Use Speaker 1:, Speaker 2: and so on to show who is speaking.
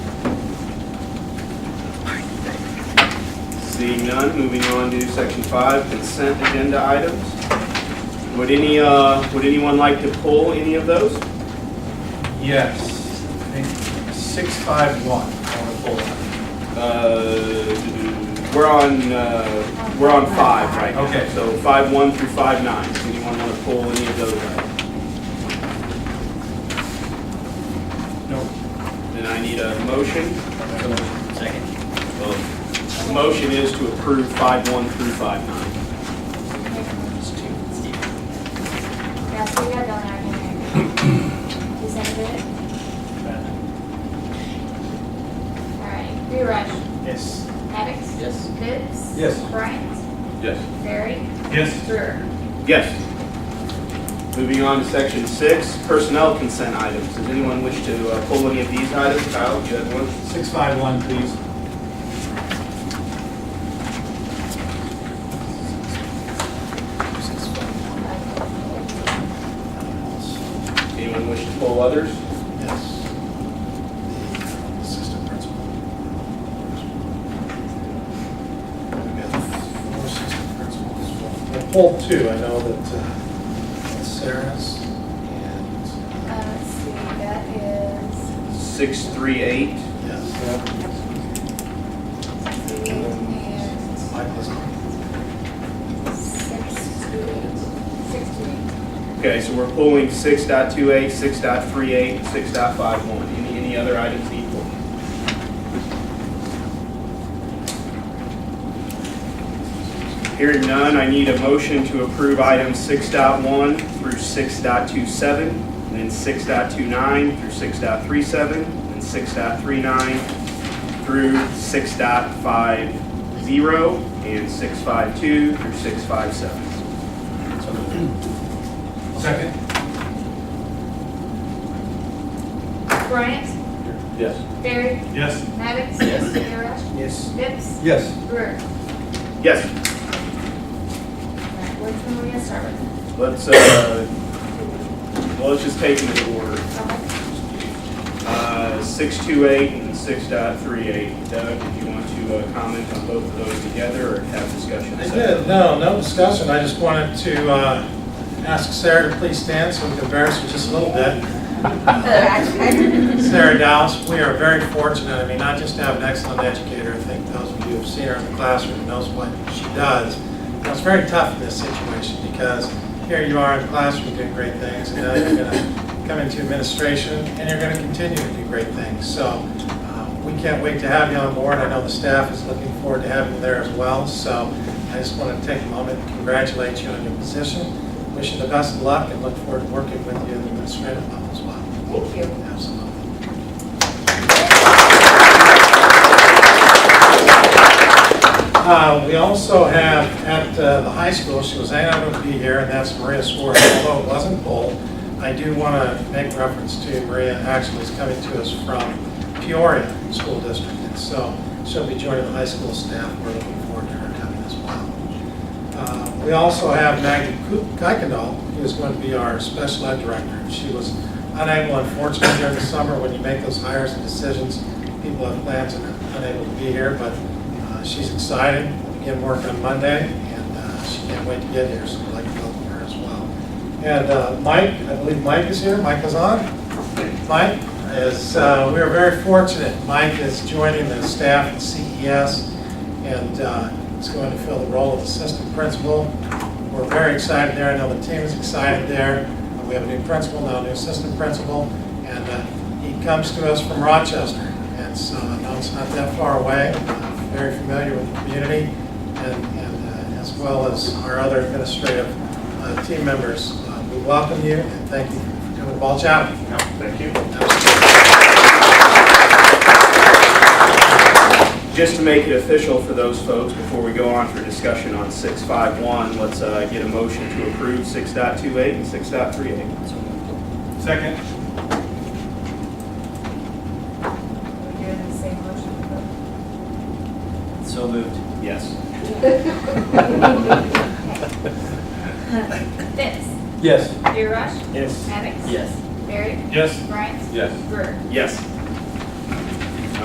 Speaker 1: Seeing none, moving on to section five, consent agenda items. Would any, uh, would anyone like to pull any of those?
Speaker 2: Yes, I think six five one, I want to pull that.
Speaker 1: Uh, We're on, uh, we're on five right now.
Speaker 2: Okay.
Speaker 1: So five one through five nine. Does anyone want to pull any of those items?
Speaker 2: No.
Speaker 1: Then I need a motion.
Speaker 3: Second.
Speaker 1: Motion is to approve five one through five nine.
Speaker 4: Yeah, so we got done our hearing. You seconded it? All right. Rewrite.
Speaker 2: Yes.
Speaker 4: Maddox.
Speaker 3: Yes.
Speaker 4: Pitts.
Speaker 2: Yes.
Speaker 4: Bryant.
Speaker 1: Yes.
Speaker 4: Barry.
Speaker 2: Yes.
Speaker 4: Brewer.
Speaker 1: Yes. Moving on to section six, personnel consent items. Does anyone wish to uh, pull any of these items? Kyle, you had one?
Speaker 2: Six five one, please.
Speaker 4: Uh,
Speaker 1: Anyone wish to pull others?
Speaker 2: Yes. Assistant principal. We've got four assistant principals. I pulled two, I know that uh, Sarah's and,
Speaker 4: Uh, let's see, that is
Speaker 1: Six three eight.
Speaker 2: yes,
Speaker 4: six, eight, and
Speaker 2: Michael's.
Speaker 4: six, two, eight. Six, two, eight.
Speaker 1: Okay, so we're pulling 6.28, 6.38, 6.51. Any, any other items equal? Hearing none, I need a motion to approve items 6.1 through 6.27, and then 6.29 through 6.37, and 6.39 through 6.50, and six five two through six five seven.
Speaker 2: Second?
Speaker 4: Bryant.
Speaker 1: Yes.
Speaker 4: Barry.
Speaker 2: Yes.
Speaker 4: Maddox.
Speaker 3: Yes.
Speaker 4: Rewrite.
Speaker 2: Yes.
Speaker 4: Pitts.
Speaker 2: Yes.
Speaker 4: Brewer.
Speaker 1: Yes.
Speaker 4: All right, which one are we gonna start with?
Speaker 1: Let's, uh, well, let's just take them in order.
Speaker 4: Okay.
Speaker 1: Uh, 628 and 6.38. Doug, if you want to uh, comment on both of those together or have discussion?
Speaker 2: I
Speaker 1: separately?
Speaker 2: did, no, no discussion, I just wanted to uh, ask Sarah to please stand so we can embarrass her just a little bit. Sarah Dowse, we are very fortunate, I mean, not just to have an excellent educator, I think those of you who've seen her in the classroom knows what she does. Now, It's very tough in this situation, because here you are in the classroom doing great things, and now you're gonna come into administration, and you're gonna continue to do great things. So, uh, we can't wait to have you on board, I know the staff is looking forward to having you there as well, so I just want to take a moment and congratulate you on your position, wish you the best of luck, and look forward to working with you in the administrative level as well.
Speaker 4: Thank you.
Speaker 2: Absolutely. Uh, We also have at uh, the high school, she was unable to be here, and that's Maria Swartz, although it wasn't polled. I do want to make reference to Maria actually is coming to us from Peoria School District, and so she'll be joining the high school staff. We're looking forward to her coming as well. Uh, We also have Maggie Kuykendall, who is going to be our special ed director. She was unable, unfortunately, during the summer, when you make those hires and decisions, people have plans and are unable to be here, but uh, she's excited. We Begin work on Monday, and uh, she can't wait to get here, so we'd like to welcome her as well. And uh, Mike, I believe Mike is here. Mike is on? Mike is, uh, we are very fortunate. Mike is joining the staff at CES and uh, is going to fill the role of assistant principal. We're very excited there. I know the team is excited there. We have a new principal, now a new assistant principal, and uh, he comes to us from Rochester. And so I know it's not that far away. Uh, Very familiar with the community and, and uh, as well as our other administrative uh, team members. Uh, We welcome you and thank you for doing a ball job.
Speaker 1: No, Thank you. Just to make it official for those folks, before we go on for discussion on 6.51, let's uh, get a motion to approve 6.28 and 6.38.
Speaker 2: Second.
Speaker 4: We're doing the same motion. but-
Speaker 3: So moved.
Speaker 1: Yes.
Speaker 4: Fitz.
Speaker 2: Yes.
Speaker 4: Derush.
Speaker 2: Yes.
Speaker 4: Maddox.
Speaker 3: Yes.
Speaker 4: Barry.
Speaker 2: Yes.
Speaker 4: Bryant.
Speaker 2: Yes.
Speaker 4: Brewer.
Speaker 1: Yes.